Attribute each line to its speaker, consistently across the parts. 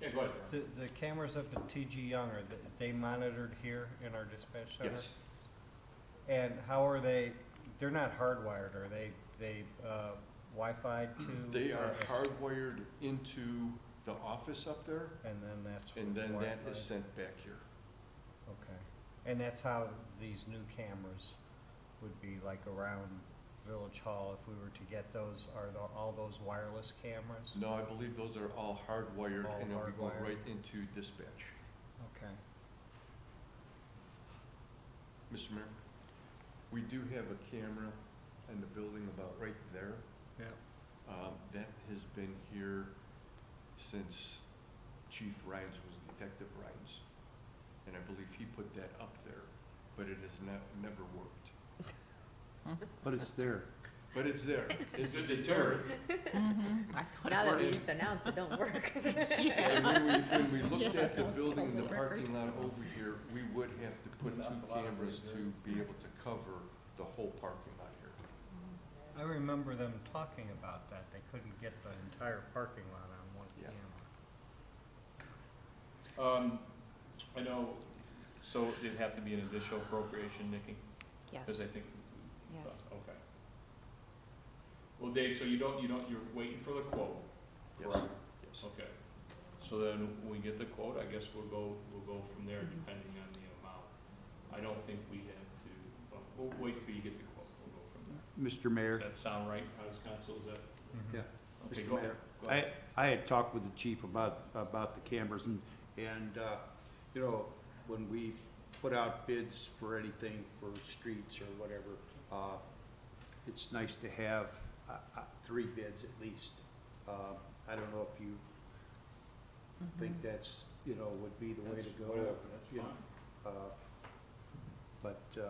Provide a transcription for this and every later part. Speaker 1: Yeah, go ahead. Brian.
Speaker 2: The, the cameras up at TG Young, are th- they monitored here in our dispatch center?
Speaker 1: Yes,
Speaker 2: And how are they, they're not hardwired, are they, they, uh, Wi-Fi to?
Speaker 1: they are
Speaker 2: or a-
Speaker 1: hardwired into the office up there,
Speaker 2: And then that's.
Speaker 1: and then that
Speaker 2: Wi-Fi?
Speaker 1: is sent back here.
Speaker 2: Okay, and that's how these new cameras would be like around Village Hall if we were to get those, are the, all those wireless cameras?
Speaker 1: No, I believe those are all hardwired,
Speaker 2: All
Speaker 1: and then we go
Speaker 2: hardwired.
Speaker 1: right into dispatch.
Speaker 2: Okay,
Speaker 1: Mr. Mayor, we do have a camera in the building about right there.
Speaker 2: yeah,
Speaker 1: Um, That has been here since Chief Rhines was Detective Rhines. And I believe he put that up there, but it has not, never worked.
Speaker 3: But it's there.
Speaker 1: But it's there. It's a deterrent.
Speaker 4: Now that we
Speaker 1: Right.
Speaker 4: just announced it don't work.
Speaker 1: And when we, when we looked at the building and the parking lot over here, we would have to put two cameras to be able to cover the whole parking lot here.
Speaker 2: I remember them talking about that, they couldn't get the entire parking lot on one
Speaker 1: Yeah.
Speaker 2: camera.
Speaker 5: Um, I know, so it'd have to be an additional appropriation, Nikki? Because I think. uh,
Speaker 4: Yes.
Speaker 5: Okay. Well, Dave, so you don't, you don't, you're waiting for the quote?
Speaker 1: Yes,
Speaker 5: Correct.
Speaker 1: yes.
Speaker 5: Okay. So then, when we get the quote, I guess we'll go, we'll go from there depending on the amount. I don't think we have to, but we'll wait till you get the quote, we'll go from there.
Speaker 3: Mr. Mayor,
Speaker 5: Does that sound right, House Counsel, is that?
Speaker 2: Mhm.
Speaker 3: Yeah.
Speaker 5: Okay,
Speaker 3: Mr.
Speaker 5: go ahead.
Speaker 3: Mayor,
Speaker 5: Go
Speaker 3: I,
Speaker 5: ahead.
Speaker 3: I had talked with the chief about, about the cameras and, and, uh, you know, when we put out bids for anything for streets or whatever, uh, it's nice to have, uh, uh, three bids at least. Uh, I don't know if you
Speaker 1: uh,
Speaker 3: think that's, you know, would be the way to
Speaker 5: That's
Speaker 3: go.
Speaker 5: whatever,
Speaker 3: you
Speaker 5: That's
Speaker 3: know,
Speaker 5: fine.
Speaker 3: uh, But, uh,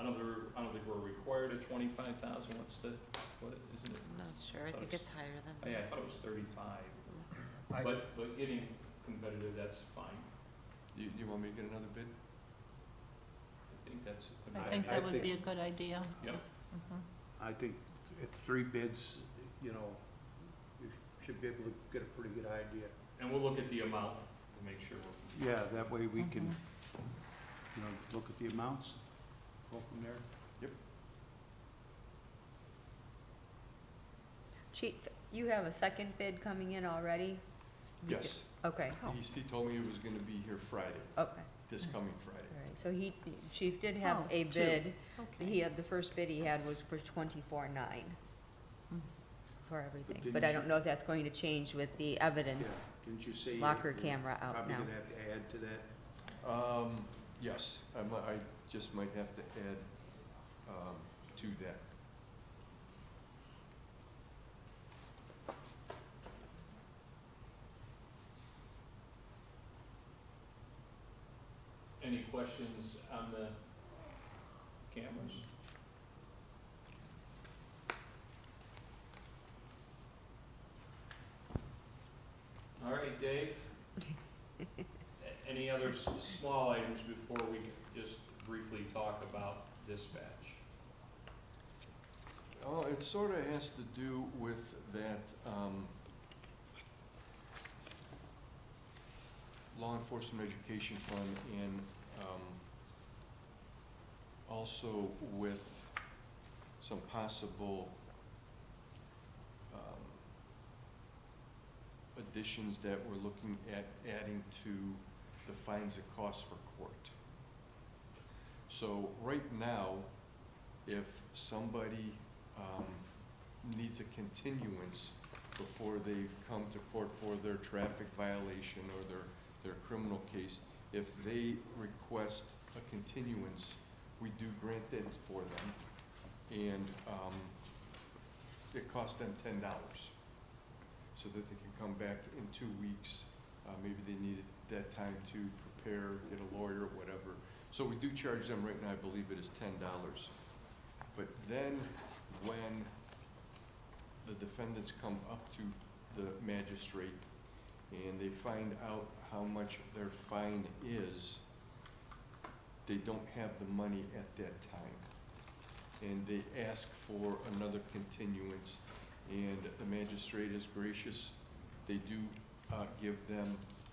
Speaker 5: I don't think, we're- I don't think we're required at twenty-five thousand, what's the, what, isn't it?
Speaker 4: I'm not sure, I think it's higher
Speaker 5: Oh,
Speaker 4: than.
Speaker 5: Yeah, I thought it was thirty-five,
Speaker 2: I-
Speaker 5: but, but getting competitive, that's fine,
Speaker 1: You, you want me to get another bid?
Speaker 5: I think that's. a
Speaker 6: I
Speaker 5: good
Speaker 6: think
Speaker 3: I
Speaker 6: that would
Speaker 3: think-
Speaker 6: be a good idea.
Speaker 5: idea. Yep,
Speaker 3: I think if three bids, you know, you should be able to get a pretty good idea.
Speaker 5: and we'll look at the amount to make sure we're.
Speaker 3: Yeah, that way we can, you know, look at the amounts, go from there.
Speaker 4: Chief, you have a second bid coming in already? You
Speaker 1: Yes.
Speaker 4: ju- Okay,
Speaker 1: He, he told me he was gonna be here Friday,
Speaker 4: okay, all
Speaker 1: this coming Friday.
Speaker 4: right, so he, Chief did have
Speaker 6: Oh,
Speaker 4: a
Speaker 6: two.
Speaker 4: bid,
Speaker 6: Okay.
Speaker 4: he had, the first bid he had was for twenty-four nine for everything,
Speaker 3: didn't
Speaker 4: but I
Speaker 3: you-
Speaker 4: don't know if that's going to change with the evidence
Speaker 3: Yeah, Didn't you say? you-
Speaker 4: locker camera out
Speaker 3: Probably
Speaker 4: now.
Speaker 3: gonna have to add to that.
Speaker 1: Um, yes, I mi- I just might have to add, um, to that.
Speaker 5: Any questions on the cameras? All right, Dave? A- Any other s- small items before we just briefly talk about dispatch?
Speaker 1: Oh, it sort of has to do with that, um, law enforcement education fund and, um, also with some possible, um, additions that we're looking at adding to the fines and costs for court. So right now, if somebody um, needs a continuance before they've come to court for their traffic violation or their, their criminal case, if they request a continuance, we do grant that for them, and um, it costs them ten dollars, so that they can come back in two weeks. Uh, Maybe they needed that time to prepare, get a lawyer, whatever. So we do charge them right now, I believe it is ten dollars. But then, when the defendants come up to the magistrate and they find out how much their fine is, they don't have the money at that time. And they ask for another continuance, and the magistrate is gracious. They do uh, give them